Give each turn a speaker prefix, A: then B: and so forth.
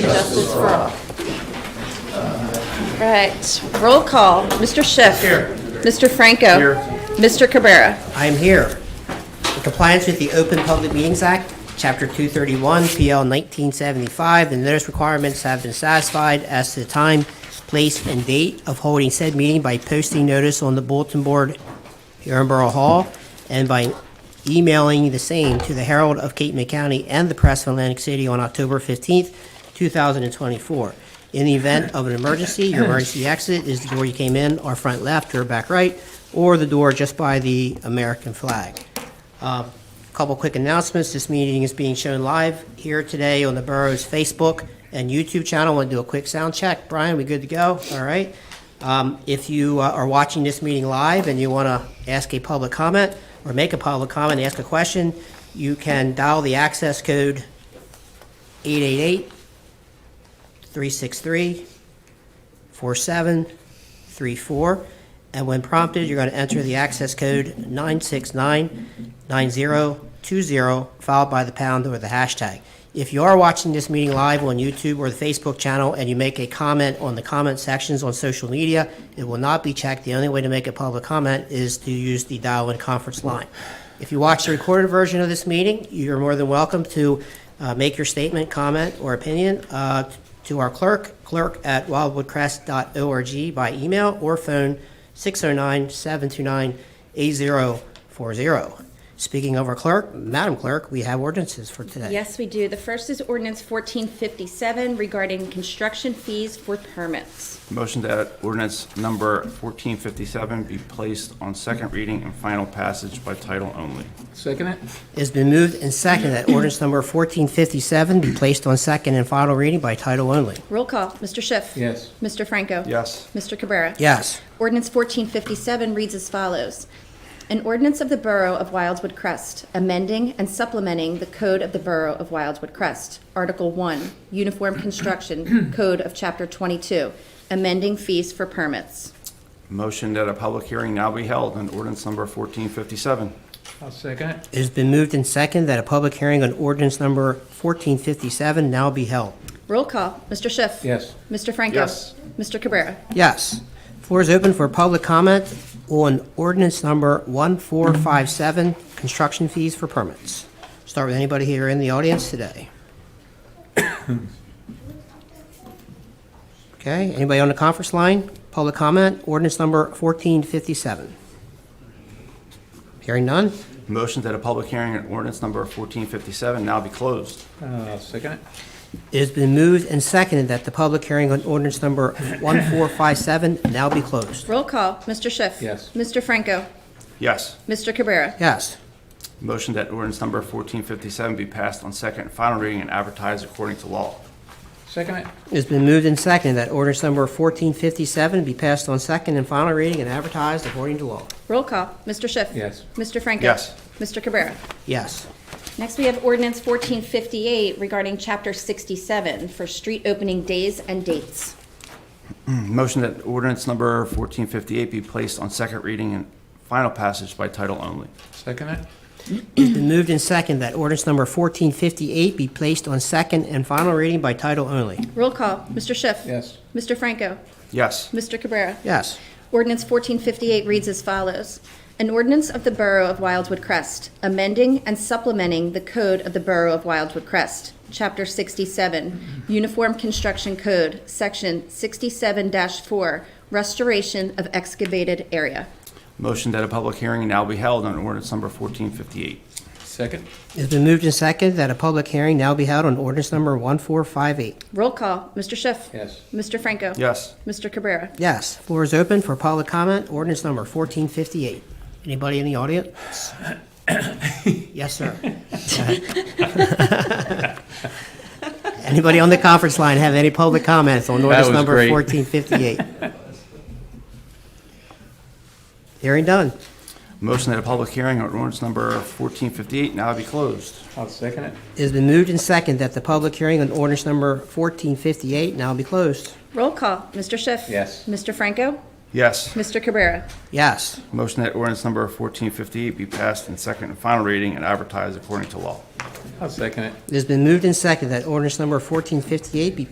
A: justice for all. Right, roll call. Mr. Schiff.
B: Here.
A: Mr. Franco.
B: Here.
A: Mr. Cabrera.
C: I am here. In compliance with the Open Public Meetings Act, Chapter 231, PL 1975, the notice requirements have been satisfied as to the time, place, and date of holding said meeting by posting notice on the bulletin board here in Borough Hall and by emailing the same to the Herald of Cape May County and the Press of Atlantic City on October 15th, 2024. In the event of an emergency, your emergency exit is the door you came in, or front left, or back right, or the door just by the American flag. Um, Couple quick announcements. This meeting is being shown live here today on the borough's Facebook and YouTube channel. Want to do a quick sound check. Brian, we good to go? All right. Um, If you uh, are watching this meeting live and you want to ask a public comment or make a public comment, ask a question, you can dial the access code 888 363 4734, and when prompted, you're going to enter the access code 9699020, followed by the pound or the hashtag. If you are watching this meeting live on YouTube or the Facebook channel and you make a comment on the comment sections on social media, it will not be checked. The only way to make a public comment is to use the dial-in conference line. If you watch the recorded version of this meeting, you're more than welcome to uh, make your statement, comment, or opinion uh, to our clerk, clerk at wildwoodcrest.org by email or phone 609-729-8040. Speaking of our clerk, Madam Clerk, we have ordinances for today.
A: Yes, we do. The first is ordinance 1457 regarding construction fees for permits.
B: Motion that ordinance number 1457 be placed on second reading and final passage by title only.
D: Second it?
C: It's been moved and seconded that ordinance number 1457 be placed on second and final reading by title only.
A: Roll call. Mr. Schiff.
D: Yes.
A: Mr. Franco.
B: Yes.
A: Mr. Cabrera.
C: Yes.
A: Ordinance 1457 reads as follows. An ordinance of the Borough of Wildwood Crest, amending and supplementing the Code of the Borough of Wildwood Crest, Article 1, Uniform Construction Code of Chapter 22, amending fees for permits.
B: Motion that a public hearing now be held on ordinance number 1457.
D: I'll second it.
C: It has been moved and seconded that a public hearing on ordinance number 1457 now be held.
A: Roll call. Mr. Schiff.
D: Yes.
A: Mr. Franco.
B: Yes.
A: Mr. Cabrera.
C: Yes. Floor is open for public comment on ordinance number 1457, construction fees for permits. Start with anybody here in the audience today. Okay, anybody on the conference line? Public comment, ordinance number 1457. Hearing none?
B: Motion that a public hearing on ordinance number 1457 now be closed.
D: I'll second it.
C: It has been moved and seconded that the public hearing on ordinance number 1457 now be closed.
A: Roll call. Mr. Schiff.
D: Yes.
A: Mr. Franco.
B: Yes.
A: Mr. Cabrera.
C: Yes.
B: Motion that ordinance number 1457 be passed on second and final reading and advertised according to law.
D: Second it?
C: It's been moved and seconded that ordinance number 1457 be passed on second and final reading and advertised according to law.
A: Roll call. Mr. Schiff.
D: Yes.
A: Mr. Franco.
B: Yes.
A: Mr. Cabrera.
C: Yes.
A: Next, we have ordinance 1458 regarding Chapter 67 for street opening days and dates.
B: Motion that ordinance number 1458 be placed on second reading and final passage by title only.
D: Second it?
C: It's been moved and seconded that ordinance number 1458 be placed on second and final reading by title only.
A: Roll call. Mr. Schiff.
D: Yes.
A: Mr. Franco.
B: Yes.
A: Mr. Cabrera.
C: Yes.
A: Ordinance 1458 reads as follows. An ordinance of the Borough of Wildwood Crest, amending and supplementing the Code of the Borough of Wildwood Crest, Chapter 67, Uniform Construction Code, Section 67-4, Restoration of Excavated Area.
B: Motion that a public hearing now be held on ordinance number 1458.
D: Second?
C: It's been moved and seconded that a public hearing now be held on ordinance number 1458.
A: Roll call, Mr. Schiff.
D: Yes.
A: Mr. Franco.
B: Yes.
A: Mr. Cabrera.
C: Yes. Floor is open for public comment, ordinance number 1458. Anybody in the audience? Yes, sir. Anybody on the conference line have any public comments on ordinance
D: was
C: number
D: great.
C: 1458? Hearing done.
B: Motion that a public hearing on ordinance number 1458 now be closed.
D: I'll second it.
C: It has been moved and seconded that the public hearing on ordinance number 1458 now be closed.
A: Roll call, Mr. Schiff.
D: Yes.
A: Mr. Franco.
B: Yes.
A: Mr. Cabrera.
C: Yes.
B: Motion that ordinance number 1458 be passed in second and final reading and advertised according to law.
D: I'll second it.
C: It has been moved and seconded that ordinance number 1458 be